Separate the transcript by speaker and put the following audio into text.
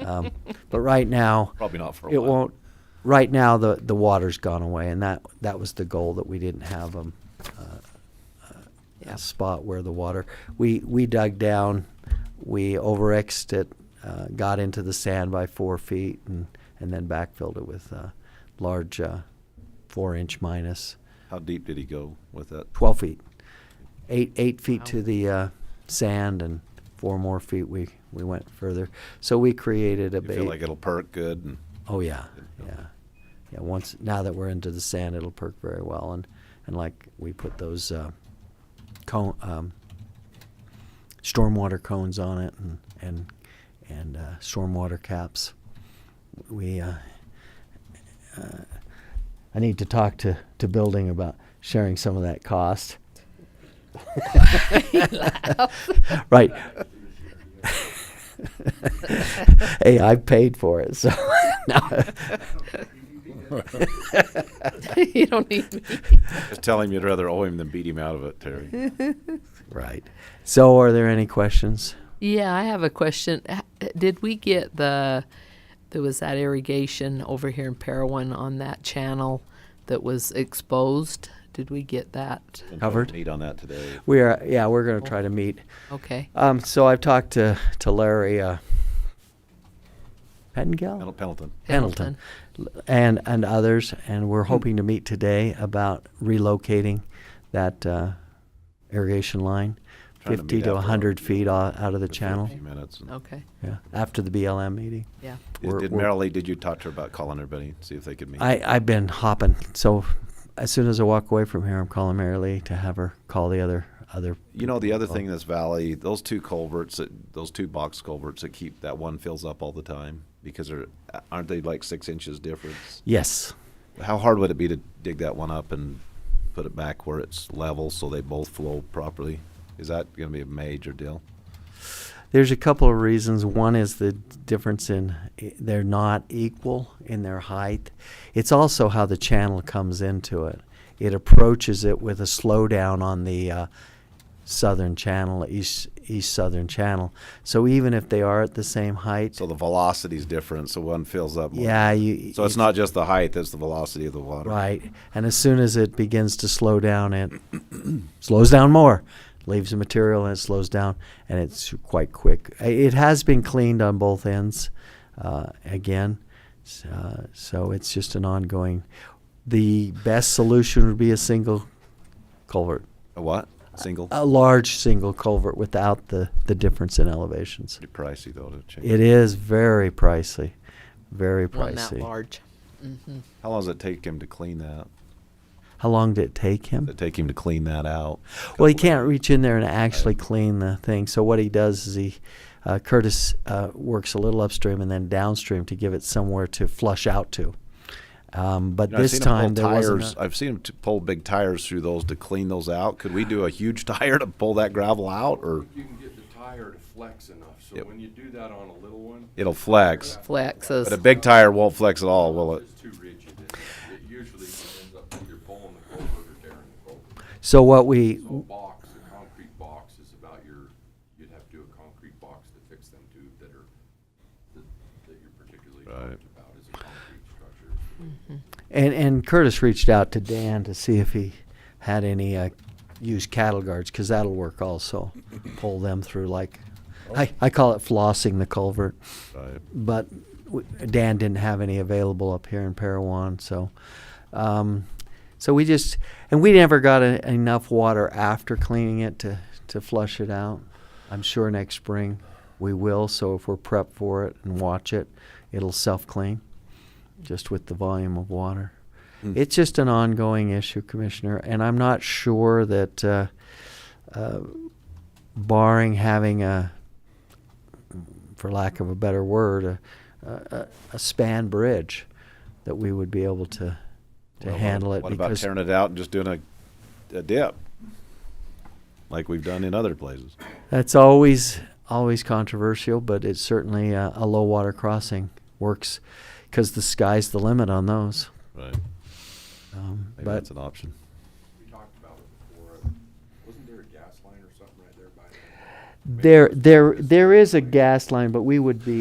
Speaker 1: Um, But right now,
Speaker 2: Probably not for a
Speaker 1: it
Speaker 2: while.
Speaker 1: won't, right now, the, the water's gone away, and that, that was the goal, that we didn't have um, uh,
Speaker 3: Yeah.
Speaker 1: a spot where the water, we, we dug down, we overexed it, uh, got into the sand by four feet, and, and then backfilled it with uh, large uh, four-inch minus.
Speaker 2: How deep did he go with that?
Speaker 1: 12 feet. Eight, eight feet
Speaker 3: Wow.
Speaker 1: to the uh, sand and four more feet we, we went further. So we created a
Speaker 2: You feel like
Speaker 1: bait.
Speaker 2: it'll perk good and
Speaker 1: Oh, yeah,
Speaker 2: Yeah.
Speaker 1: yeah. Yeah, once, now that we're into the sand, it'll perk very well. And, and like, we put those uh, cone, um, stormwater cones on it and, and, and uh, stormwater caps. We, uh, uh, I need to talk to, to building about sharing some of that cost. Right. hey, I paid for it, so no.
Speaker 3: you don't need me.
Speaker 2: just tell him you'd rather owe him than beat him out of it, Terry.
Speaker 1: right. So, are there any questions?
Speaker 3: Yeah, I have a question. H- Did we get the there was that irrigation over here in Parowan on that channel that was exposed? Did we get that?
Speaker 1: Covered.
Speaker 2: Need on that today.
Speaker 1: We are, yeah, we're going to try to meet.
Speaker 3: Okay.
Speaker 1: Um, so, I've talked to to Larry uh, Pettengill.
Speaker 2: Pendle- Pendleton.
Speaker 1: Pendleton, l- and and others, and
Speaker 2: Hmm.
Speaker 1: we're hoping to meet today about relocating that uh, irrigation line,
Speaker 2: Trying to
Speaker 1: fifty
Speaker 2: meet
Speaker 1: to
Speaker 2: after our-
Speaker 1: hundred feet o- out of the
Speaker 2: Just a
Speaker 1: channel.
Speaker 2: Few minutes. and-
Speaker 3: Okay.
Speaker 1: Yeah, after the BLM meeting.
Speaker 3: Yeah.
Speaker 2: Did-
Speaker 1: We're-
Speaker 2: Did
Speaker 1: we're-
Speaker 2: Marilee, did you talk to her about calling everybody, see if they could meet?
Speaker 1: I I've been hopping, so as soon as I walk away from here, I'm calling Mary Lee to have her call the other other.
Speaker 2: You know, the other
Speaker 1: people.
Speaker 2: thing in this valley, those two culverts, that, those two box culverts that keep, that one fills up all the time because they're, aren't they like six inches difference?
Speaker 1: Yes,
Speaker 2: How hard would it be to dig that one up and put it back where it's level so they both flow properly? Is that gonna be a major deal?
Speaker 1: there's a couple of reasons. One is the difference in i- they're not equal in their height. It's also how the channel comes into it. It approaches it with a slowdown on the uh, southern channel, east east southern channel. So even if they are at the same height,
Speaker 2: So the velocity's different, so one fills up more.
Speaker 1: yeah, you
Speaker 2: So it's not just the height, it's the velocity of the water.
Speaker 1: Right. And as soon as it begins to slow down, it slows down more, leaves the material and it slows down, and it's quite quick. I- It has been cleaned on both ends uh, again. S- uh, so it's just an ongoing. The best solution would be a single culvert,
Speaker 2: A what? Single?
Speaker 1: a large single culvert without the, the difference in elevations.
Speaker 2: Pretty pricey though to change.
Speaker 1: It is very pricey, very
Speaker 3: One that
Speaker 1: pricey.
Speaker 3: large. hmm
Speaker 2: How long does it take him to clean that?
Speaker 1: How long did it take him?
Speaker 2: Does it take him to clean that out?
Speaker 1: Well, he
Speaker 2: Couple of-
Speaker 1: can't reach in there and actually clean the thing. So what he does is he, uh, Curtis uh, works a little upstream and then downstream to give it somewhere to flush out to. Um, but
Speaker 2: You know, I've
Speaker 1: this
Speaker 2: seen 'em pull
Speaker 1: time there wasn't.
Speaker 2: tires.
Speaker 1: a-
Speaker 2: I've seen him t- pull big tires through those to clean those out. Could we do a huge tire to pull that gravel out, or
Speaker 4: You can get the tire to flex enough, so
Speaker 2: Yep.
Speaker 4: when you do that on a little one,
Speaker 2: it'll flex?
Speaker 3: Flexes.
Speaker 2: But a big tire won't flex at all, will it?
Speaker 4: it's too rigid. It it usually ends up either pulling the culvert or tearing the culvert.
Speaker 1: so what we
Speaker 4: So a box, a concrete box is about your, you'd have to do a concrete box to fix them too that are, that that you're particularly
Speaker 2: Right.
Speaker 4: talked about as a concrete structure.
Speaker 1: and and Curtis reached out to Dan to see if he had any uh, used cattle guards because that'll work also. Pull them through like, I I call it flossing the culvert.
Speaker 2: Right.
Speaker 1: but w- Dan didn't have any available up here in Parowan, so um, so we just and we never got a, enough water after cleaning it to to flush it out. I'm sure next spring we will. So if we're prepped for it and watch it, it'll self clean just with the volume of water.
Speaker 2: Hmm.
Speaker 1: It's just an ongoing issue, Commissioner, and I'm not sure that. Uh, uh, barring having a for lack of a better word, a, a, a span bridge that we would be able to to
Speaker 2: Well, what-
Speaker 1: handle it
Speaker 2: What about
Speaker 1: because
Speaker 2: tearing it out and just doing a, a dip, like we've done in other places?
Speaker 1: that's always always controversial, but it's certainly uh, a low water crossing works because the sky's the limit on those.
Speaker 2: Right.
Speaker 1: Um,
Speaker 2: Maybe
Speaker 1: but
Speaker 2: that's an option.
Speaker 4: We talked about it before, wasn't there a gas line or something right there by? the-
Speaker 1: there there there is a gas line, but we would be